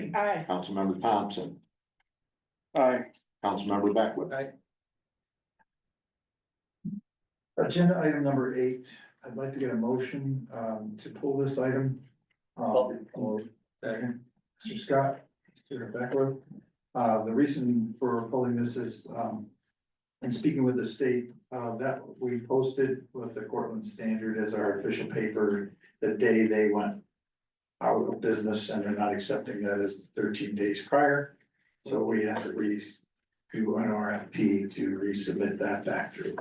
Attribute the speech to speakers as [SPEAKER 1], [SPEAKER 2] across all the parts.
[SPEAKER 1] Kane.
[SPEAKER 2] Aye.
[SPEAKER 1] Councilmember Thompson.
[SPEAKER 3] Aye.
[SPEAKER 1] Councilmember Beckwith.
[SPEAKER 3] Aye.
[SPEAKER 4] Agenda item number eight, I'd like to get a motion um to pull this item. Um, or- Second, Mr. Scott, Mr. Beckler. Uh, the reason for pulling this is um. In speaking with the state, uh, that we posted with the Cortland Standard as our official paper the day they went. Out of business and they're not accepting that as thirteen days prior. So we have to re, do an RFP to resubmit that back through.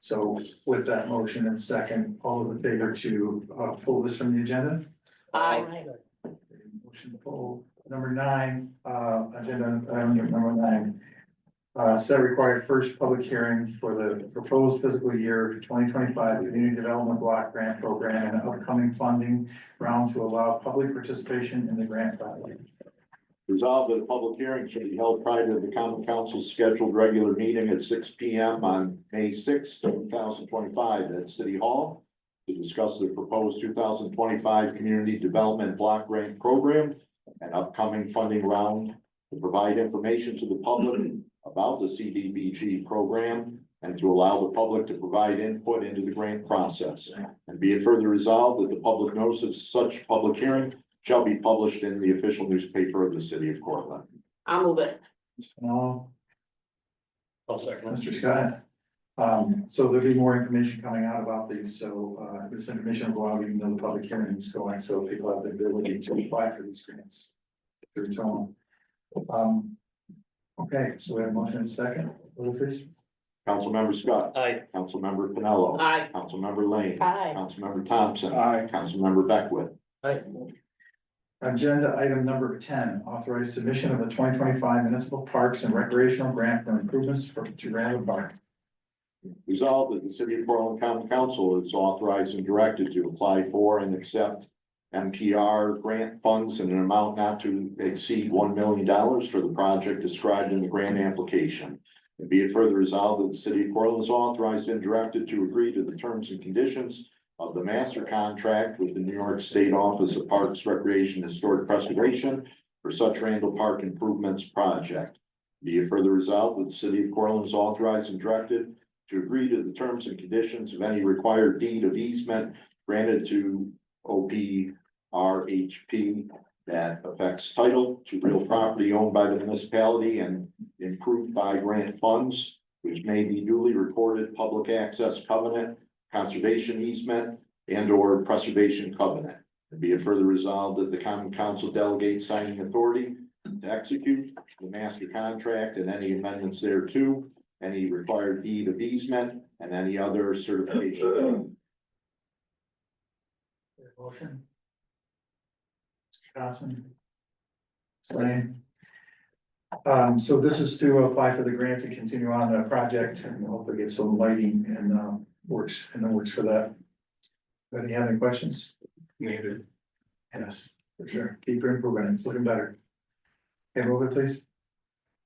[SPEAKER 4] So with that motion and second, all in favor to uh pull this from the agenda?
[SPEAKER 2] Aye.
[SPEAKER 4] Motion to pull number nine, uh agenda item number nine. Uh set required first public hearing for the proposed fiscal year twenty twenty-five community development block grant program and upcoming funding round to allow public participation in the grant project.
[SPEAKER 1] Resolved that a public hearing should be held prior to the common council's scheduled regular meeting at six P M on May sixth, two thousand twenty-five at City Hall to discuss the proposed two thousand twenty-five Community Development Block Grant Program and upcoming funding round to provide information to the public about the C D B G program and to allow the public to provide input into the grant process. And be it further resolved that the public notice of such public hearing shall be published in the official newspaper of the city of Cortland.
[SPEAKER 2] I'll move it.
[SPEAKER 4] Mr. Pennell,
[SPEAKER 3] I'll second.
[SPEAKER 4] Mr. Scott. Um, so there'll be more information coming out about these, so, uh, this information will go out even though the public hearing is going, so people have the ability to apply for these grants. Through Tom. Um, okay, so we have a motion and second, Lucas,
[SPEAKER 1] Councilmember Scott.
[SPEAKER 3] Aye.
[SPEAKER 1] Councilmember Pinello.
[SPEAKER 2] Aye.
[SPEAKER 1] Councilmember Lane.
[SPEAKER 2] Aye.
[SPEAKER 1] Councilmember Thompson.
[SPEAKER 3] Aye.
[SPEAKER 1] Councilmember Beckwith.
[SPEAKER 3] Aye.
[SPEAKER 4] agenda item number ten, authorize submission of the twenty twenty-five municipal parks and recreational grant for improvements for to Randall Park.
[SPEAKER 1] Resolved that the city of Portland County Council is authorized and directed to apply for and accept MPR grant funds in an amount not to exceed one million dollars for the project described in the grant application. And be it further resolved that the city of Portland is authorized and directed to agree to the terms and conditions of the master contract with the New York State Office of Parks, Recreation, and Historic Preservation for such Randall Park improvements project. Be it further resolved that the city of Portland is authorized and directed to agree to the terms and conditions of any required deed of easement granted to O P R H P that affects title to real property owned by the municipality and improved by grant funds, which may be newly recorded public access covenant, conservation easement, and or preservation covenant. And Be it further resolved that the common council delegates signing authority to execute the master contract and any amendments thereto any required deed of easement, and any other certification.
[SPEAKER 4] Motion. Johnson. Same. Um, so this is to apply for the grant to continue on the project and hopefully get some lighting and, um, works, and the works for that. Anybody have any questions? Needed. Yes, for sure. Keep your improvement. It's looking better. Okay, roll it please.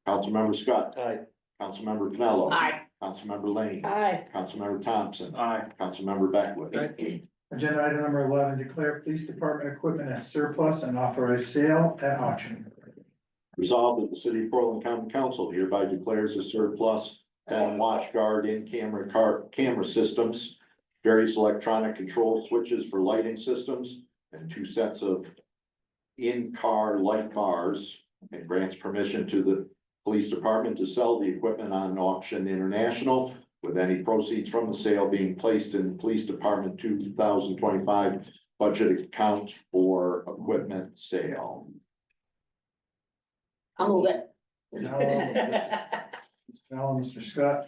[SPEAKER 1] Councilmember Scott.
[SPEAKER 3] Aye.
[SPEAKER 1] Councilmember Pinello.
[SPEAKER 2] Aye.
[SPEAKER 1] Councilmember Lane.
[SPEAKER 2] Aye.
[SPEAKER 1] Councilmember Thompson.
[SPEAKER 3] Aye.
[SPEAKER 1] Councilmember Beckwith.
[SPEAKER 3] Aye.
[SPEAKER 4] Agenda item number eleven, declare police department equipment as surplus and authorize sale at auction.
[SPEAKER 1] Resolved that the city of Portland County Council hereby declares a surplus and watch guard in camera car, camera systems, various electronic control switches for lighting systems, and two sets of in-car light bars, and grants permission to the police department to sell the equipment on auction international, with any proceeds from the sale being placed in the police department two thousand twenty-five budget account for equipment sale.
[SPEAKER 2] I'll move it.
[SPEAKER 4] Now, Now, Mr. Scott,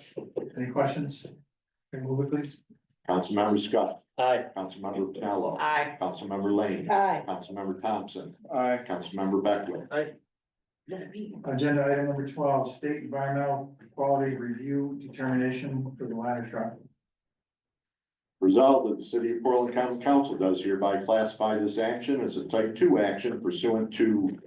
[SPEAKER 4] any questions? Okay, move it please.
[SPEAKER 1] Councilmember Scott.
[SPEAKER 3] Aye.
[SPEAKER 1] Councilmember Pinello.
[SPEAKER 2] Aye.
[SPEAKER 1] Councilmember Lane.
[SPEAKER 2] Aye.
[SPEAKER 1] Councilmember Thompson.
[SPEAKER 3] Aye.
[SPEAKER 1] Councilmember Beckwith.
[SPEAKER 4] Agenda item number twelve, state environmental quality review determination for the ladder truck.
[SPEAKER 1] Resolved that the city of Portland County Council does hereby classify this action as a type two action pursuant to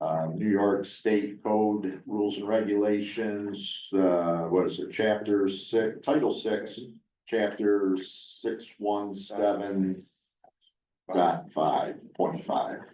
[SPEAKER 1] uh, New York State Code Rules and Regulations, uh, what is it, chapter six, title six, chapter six, one, seven, dot five, point five.